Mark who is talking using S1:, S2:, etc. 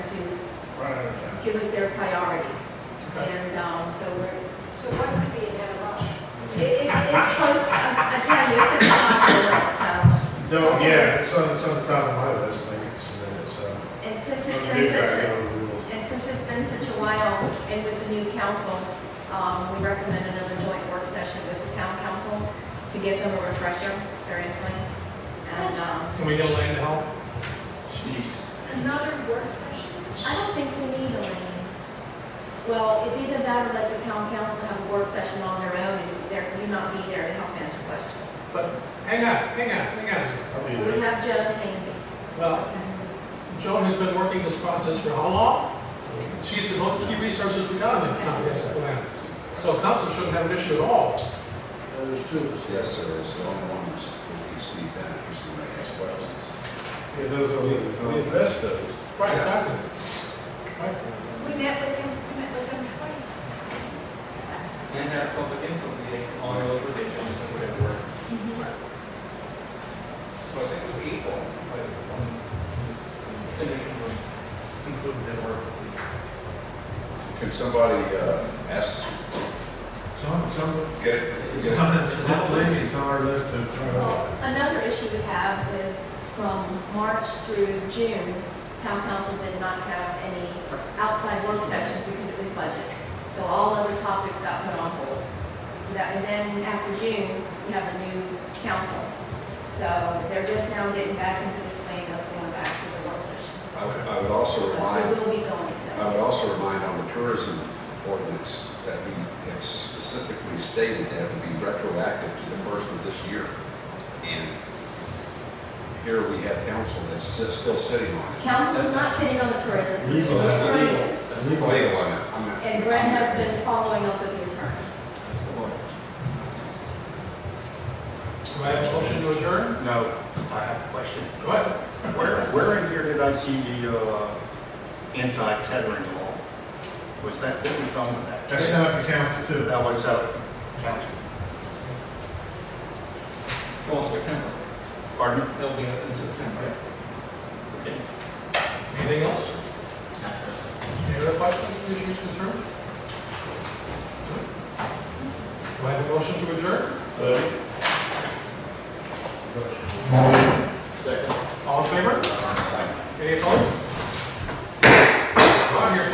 S1: prioritize.
S2: give us their priorities.
S1: Okay.
S2: And, um, so we're,
S3: So what could be in that rush?
S2: it- it's, it's close, I I tell you, it's at the top of the list, so.
S1: No, yeah, it's on, it's on the top of my list, I get some minutes, so.
S2: And since
S1: I'm
S2: it's
S1: gonna
S2: been
S1: get back
S2: such a,
S1: on the rules.
S2: and since it's been such a while, and with the new council, um, we recommend another joint work session with the town council to give them a refresher, seriously. And, um,
S4: Can we get Elaine to help? Jeez.
S3: Another work session?
S2: I don't think we need a lane. Well, it's either that or let the town council have a work session on their own, and they're, you not be there to help answer questions.
S4: But hang on, hang on, hang
S1: I'll be
S2: We
S1: there.
S2: have Joan and Andy.
S4: on. Well, Joan has been working this process for how long? She's the most key resources we got in the county, that's the plan. So council shouldn't have an issue at all.
S1: Uh, There's two of us.
S5: Yes, sir, it's the only one that's, we see that, who's going to ask questions.
S1: Yeah, those are, we we addressed those.
S4: Right, exactly. Right.
S3: We met with him, we met with him twice.
S6: And have public input meeting on those revisions and whatever. So I think it was April, but when this this condition was included in work.
S5: Can somebody uh, ask,
S1: Some, some,
S5: get it? get it-
S1: some ladies on our list to
S2: Well,
S1: prioritize.
S2: another issue we have is from March through June, town council did not have any outside work sessions because it was budget. So all other topics got put on hold. So that, and then after June, we have a new council. So they're just now getting back into the swing of going back to the work sessions.
S5: I would, I would also
S2: So we
S5: remind,
S2: will be going to
S5: I
S2: them.
S5: would also remind on the tourism ordinance that we had specifically stated that it would be retroactive to the first of this year. And here we have council that's si- still sitting on it.
S2: Council is not sitting on the tourism.
S1: Legal, that's
S2: Attorney
S1: legal.
S2: is.
S5: It's Legal, on it. I'm not-
S2: And Brent has been following up with the attorney.
S6: That's the one.
S4: Do I have a motion to adjourn?
S7: No, I have a question.
S4: Go ahead.
S7: Where, where in here did I see the uh, anti-tethering law? Was that, what was done with that?
S1: That's not the council too.
S7: That was out council.
S6: Go on September.
S7: Pardon?
S6: They'll be up in September.
S7: Okay.
S4: Anything else? Any other questions, issues, concerns? Do I have a motion to adjourn? All in favor? Any opposed?